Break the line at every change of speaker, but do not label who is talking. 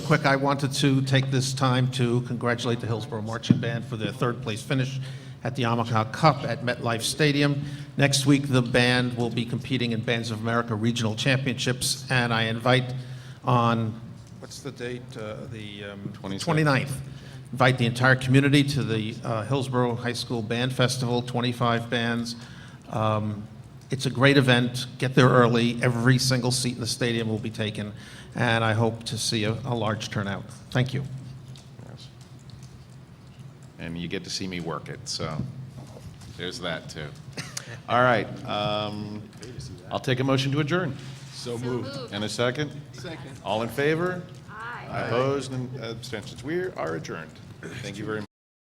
quick, I wanted to take this time to congratulate the Hillsborough Marching Band for their third-place finish at the Amaka Cup at MetLife Stadium. Next week, the band will be competing in Bands of America Regional Championships, and I invite on, what's the date? Uh, The um,
26th.
29th. Invite the entire community to the uh, Hillsborough High School Band Festival, 25 bands. Um, It's a great event. Get there early. Every single seat in the stadium will be taken, and I hope to see a, a large turnout. Thank you.
Yes. And you get to see me work it, so there's that too. All right, um, I'll take a motion to adjourn. So moved. And a second? Second. All in favor? Aye. Opposed and abstentions? We are adjourned. Thank you very much.